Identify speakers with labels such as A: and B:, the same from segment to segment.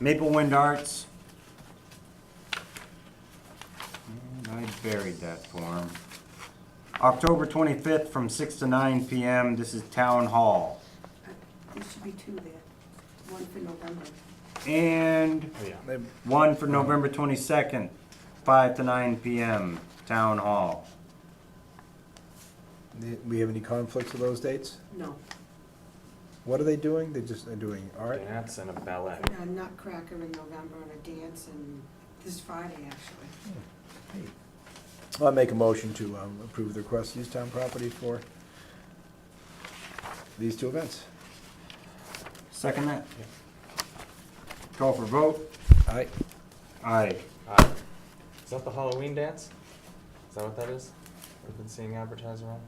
A: Maple Wind Arts. And I buried that form. October 25th from 6 to 9 PM, this is Town Hall.
B: There should be two there, one for November.
A: And
C: Oh,
A: one for November 22nd, 5 to 9 PM, Town Hall.
D: Do we have any conflicts with those dates?
B: No,
D: What are they doing? They're just, they're doing art?
C: Dance and a ballet.
B: a Nutcracker uh, in November and a dance and this Friday, actually.
D: I'll make a motion to um, approve the request to use town property for these two events.
A: Second that? Call for vote?
D: Aye.
A: Aye.
C: Uh, Is that the Halloween dance? Is that what that is? We've been seeing advertised around?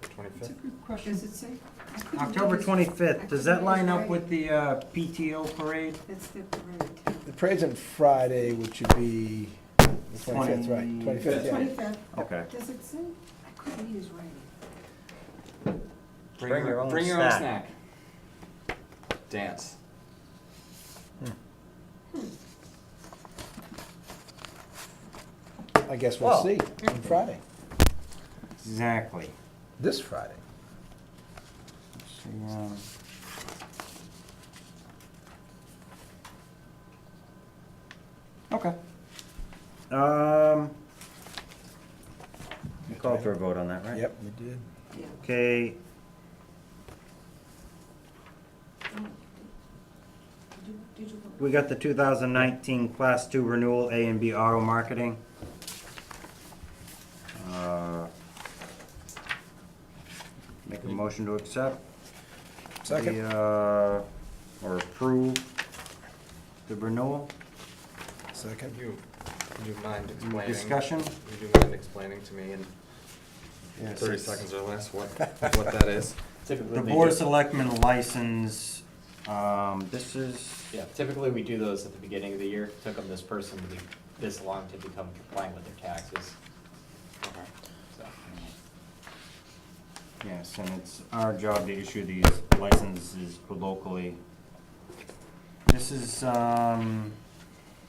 C: The
B: It's a
C: twenty-fifth?
B: good question. Does it say? I couldn't
A: October
B: read this.
A: 25th, does that line up
B: Right.
A: with the uh, PTO parade?
B: That's the parade.
D: The parade's on Friday, which would be the twenty-fifth, right? Twenty-fifth, yeah.
B: Twenty-fifth,
A: Okay.
B: does it say? I couldn't read his writing.
A: Bring your own
C: Bring your own
A: snack.
C: snack. Dance.
D: I guess we'll
A: Well.
D: see on Friday,
A: Exactly.
D: this Friday.
A: See, um, Okay. Um. You called for a vote on that, right?
D: Yep, we did.
B: Yeah.
A: Okay,
B: Oh, Did did you, did you? vote?
A: we got the two thousand nineteen class two renewal A and B auto marketing. Uh, Make a motion to accept.
D: Second,
A: the, uh, Or approve the renewal.
D: uh, second.
C: Could you, would you mind explaining?
A: Discussion?
C: Would you mind explaining to me in
D: Yes,
C: thirty
D: it's-
C: seconds or less what, what that is?
E: Typically,
A: The
E: they
A: Board of
E: do-
A: Selectmen license, um, this is,
E: Yeah, typically we do those at the beginning of the year. Took them this person to be, this long to become compliant with their taxes. So,
A: yes, and it's our job to issue these licenses locally. This is, um,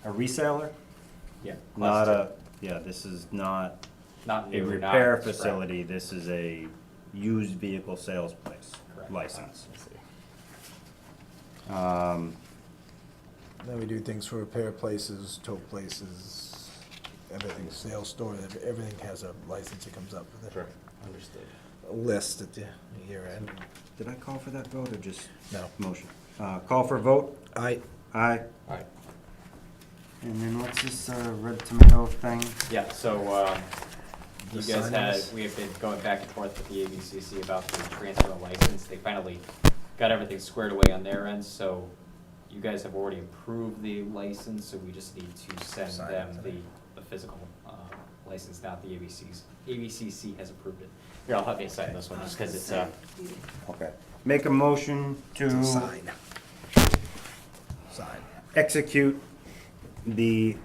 A: a reseller,
E: yeah.
A: not a,
E: cluster.
A: yeah, this is not
E: Not
A: a
E: new, not
A: repair
E: scrap.
A: facility, this is a used vehicle sales place
E: Correct.
A: license.
E: Let's see.
A: Um,
D: Then we do things for repair places, tow places, everything, sales store, ev- everything has a license that comes up with it.
C: Sure, understood.
D: A list at the year end.
A: Um, did I call for that vote or just
D: No.
A: motion? Uh, call for vote,
D: Aye.
A: aye,
C: Alright,
A: and then what's this, uh, red tomato thing?
E: Yeah, so, um, you
D: The
E: guys had,
D: signings?
E: we have been going back and forth with the ABCC about the transfer of license. They finally got everything squared away on their end, so you guys have already approved the license, so we just need to send
D: Sign it
E: them the,
D: today.
E: the physical, uh, license, not the ABC's. ABCC has approved it. Here, I'll have you sign this one, just because it's, uh,
B: Oh,
A: Okay. Make a motion to
D: Sign. Sign.
A: execute the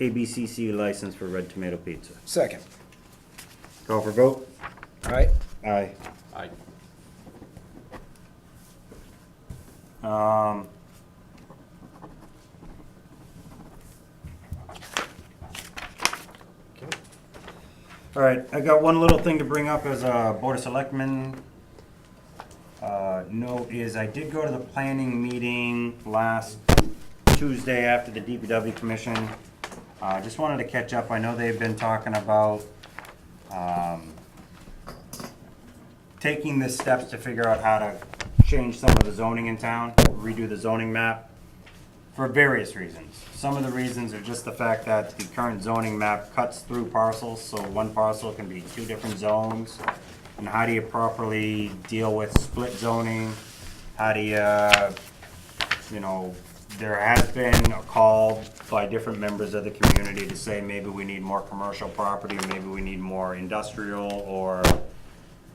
A: ABCC license for Red Tomato Pizza.
D: Second.
A: Call for vote?
D: All right.
A: Aye.
E: I,
A: Um.
C: okay.
A: All right, I got one little thing to bring up as a Board of Selectmen. uh, note is I did go to the planning meeting last Tuesday after the DPW commission. I just wanted to catch up. I know they've been talking about um, taking the steps to figure out how to change some of the zoning in town, redo the zoning map for various reasons. Some of the reasons are just the fact that the current zoning map cuts through parcels, so one parcel can be two different zones. And how do you properly deal with split zoning? How do you, uh, you know, there has been a call by different members of the community to say, maybe we need more commercial property, maybe we need more industrial, or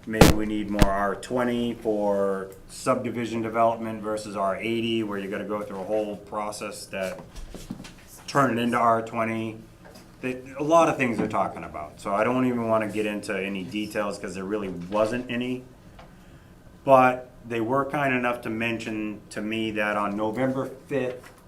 A: maybe we need more R twenty for subdivision development versus R eighty, where you gotta go through a whole process that turn it into R twenty. They, a lot of things they're talking about, so I don't even wanna get into any details, cause there really wasn't any. But they were kind enough to mention to me that on November fifth,